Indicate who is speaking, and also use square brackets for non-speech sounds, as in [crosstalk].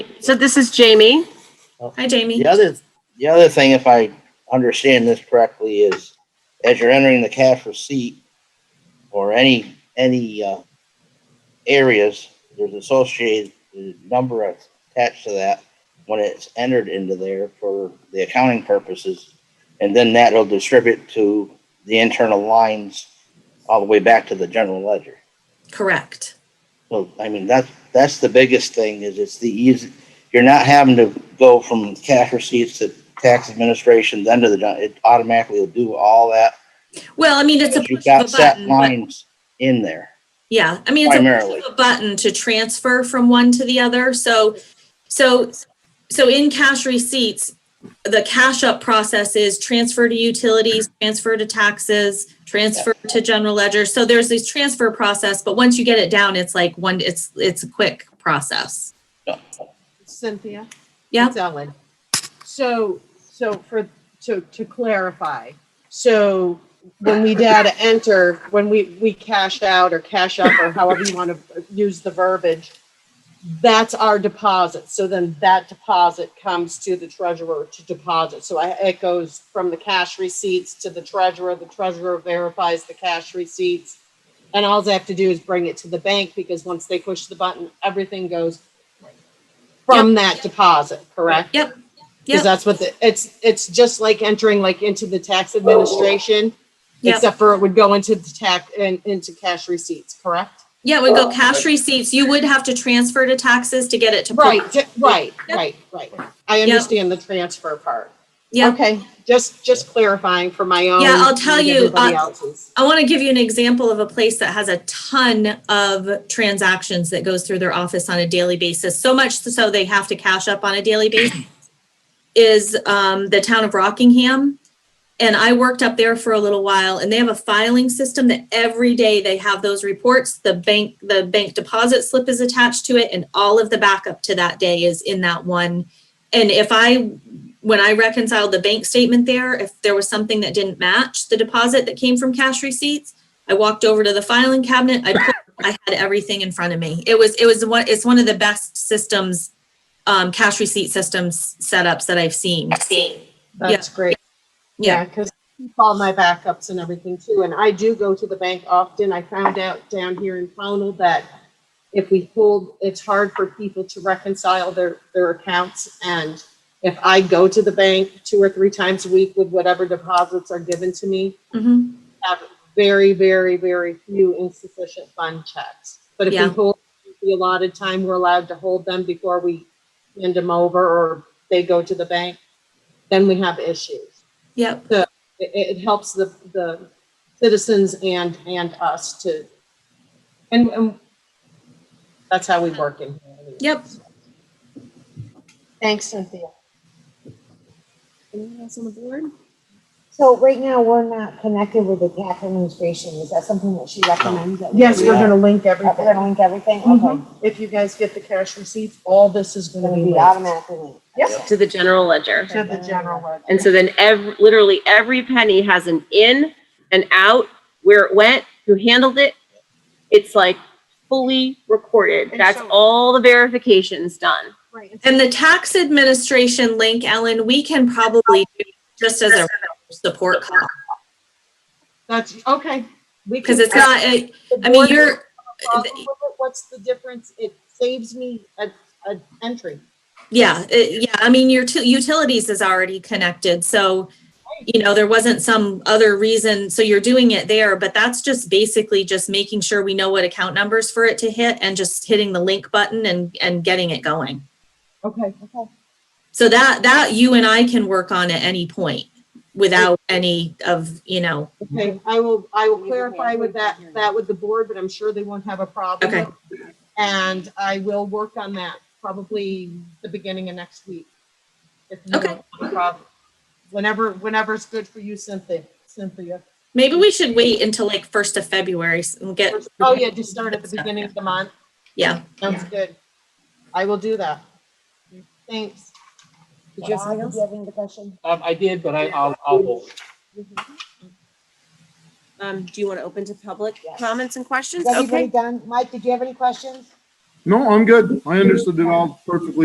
Speaker 1: So this is Jamie.
Speaker 2: Hi, Jamie.
Speaker 3: The other, the other thing, if I understand this correctly, is as you're entering the cash receipt or any, any, uh, areas, there's associated uh, number attached to that when it's entered into there for the accounting purposes. And then that'll distribute to the internal lines all the way back to the general ledger.
Speaker 2: Correct.
Speaker 3: Well, I mean, that's, that's the biggest thing is it's the easy, you're not having to go from cash receipts to tax administration, then to the, gen- it automatically will do all that.
Speaker 2: Well, I mean, it's a
Speaker 3: You've
Speaker 2: push
Speaker 3: got
Speaker 2: of a
Speaker 3: set
Speaker 2: button. but-
Speaker 3: lines in there.
Speaker 2: Yeah, I mean, it's a
Speaker 3: Primarily.
Speaker 2: push of a button to transfer from one to the other. So, so, so in cash receipts, the cash up process is transfer to utilities, transfer to taxes, transfer to general ledger. So there's this transfer process, but once you get it down, it's like one, it's, it's a quick process.
Speaker 4: Cynthia?
Speaker 2: Yeah.
Speaker 4: It's Ellen. So, so for, to, to clarify, so when we data enter, when we, we cash out or cash up or however you want to use the verbiage, that's our deposit. So then that deposit comes to the treasurer to deposit. So I, it goes from the cash receipts to the treasurer. The treasurer verifies the cash receipts. And all they have to do is bring it to the bank because once they push the button, everything goes from that deposit, correct?
Speaker 2: Yep. Yep.
Speaker 4: Because that's what the, it's, it's just like entering like into the tax administration,
Speaker 2: Yep.
Speaker 4: except for it would go into the tax and into cash receipts, correct?
Speaker 2: Yeah, we go cash receipts. You would have to transfer to taxes to get it to.
Speaker 4: Right, di- right,
Speaker 2: Yep.
Speaker 4: right, right. I understand the transfer part.
Speaker 2: Yeah.
Speaker 4: Okay, just, just clarifying for my own.
Speaker 2: Yeah, I'll tell
Speaker 4: and
Speaker 2: you,
Speaker 4: everybody
Speaker 2: uh,
Speaker 4: else's.
Speaker 2: I want to give you an example of a place that has a ton of transactions that goes through their office on a daily basis, so much so they have to cash up on a daily basis, [clears throat] is um, the town of Rockingham. And I worked up there for a little while and they have a filing system that every day they have those reports. The bank, the bank deposit slip is attached to it and all of the backup to that day is in that one. And if I when I reconciled the bank statement there, if there was something that didn't match the deposit that came from cash receipts, I walked over to the filing cabinet. I put, I had everything in front of me. It was it was one it's one of the best systems, um, cash receipt systems setups that I've seen.
Speaker 4: That's great.
Speaker 2: Yeah.
Speaker 4: Yeah, because all my backups and everything too, and I do go to the bank often. I found out down here in Pownell that if we hold, it's hard for people to reconcile their, their accounts. And if I go to the bank two or three times a week with whatever deposits are given to me,
Speaker 2: Mhm.
Speaker 4: have very, very, very few insufficient fund checks. But if
Speaker 2: Yeah.
Speaker 4: we hold the allotted time, we're allowed to hold them before we hand them over or they go to the bank, then we have issues
Speaker 2: Yep.
Speaker 4: it, it it helps the, the citizens and, and us to, and, and that's how we work in. here.
Speaker 2: Yep.
Speaker 4: Thanks, Cynthia.
Speaker 5: Anyone else on the board?
Speaker 6: So right now, we're not connected with the tax administration. Is that something that she recommends? that we
Speaker 4: Yes,
Speaker 6: do?
Speaker 4: we're gonna link
Speaker 6: We're
Speaker 4: everything.
Speaker 6: gonna link everything? Okay.
Speaker 4: Mhm. If you guys get the cash receipts, all this is
Speaker 6: It's
Speaker 4: gonna
Speaker 6: gonna
Speaker 4: be
Speaker 6: be
Speaker 4: linked
Speaker 6: automatically linked.
Speaker 4: Yep.
Speaker 5: To the general ledger.
Speaker 4: to the general ledger.
Speaker 5: And so then ev- literally every penny has an in and out, where it went, who handled it. It's like fully recorded.
Speaker 4: And
Speaker 5: That's
Speaker 4: so-
Speaker 5: all the verifications done.
Speaker 4: Right,
Speaker 2: And the tax administration link, Ellen, we can probably do just as a support call
Speaker 4: That's, okay. We
Speaker 2: because
Speaker 4: can-
Speaker 2: it's not. I
Speaker 4: The
Speaker 2: I mean,
Speaker 4: board
Speaker 2: you're.
Speaker 4: has a problem with it. What's the difference? It saves me a, a entry.
Speaker 2: Yeah, it, yeah, I mean, your tu- utilities is already connected, so, you know, there wasn't some other reason, so you're doing it there, but that's just basically just making sure we know what account numbers for it to hit and just hitting the link button and, and getting it going.
Speaker 4: Okay.
Speaker 2: So that, that you and I can work on at any point without any of, you know,
Speaker 4: Okay, I will, I will
Speaker 6: Mhm.
Speaker 4: clarify with that, that with the board, but I'm sure they won't have a problem.
Speaker 2: Okay.
Speaker 4: with it. And I will work on that probably the beginning of next week. If you
Speaker 2: Okay.
Speaker 4: don't have a problem. Whenever, whenever's good for you, Cynthia, Cynthia.
Speaker 2: maybe we should wait until like first of February s- and get.
Speaker 4: Oh, yeah, just start at the beginning of the month.
Speaker 2: Yeah.
Speaker 4: Sounds good. I will do that. Thanks.
Speaker 6: Did you have did you have any other question?
Speaker 7: Um, I did, but I, I'll, I'll hold.
Speaker 5: Um, do you want to open to public
Speaker 6: Yes.
Speaker 5: comments and questions?
Speaker 6: Is everybody done? Mike, did you have any questions?
Speaker 8: No, I'm good. I understood it all perfectly.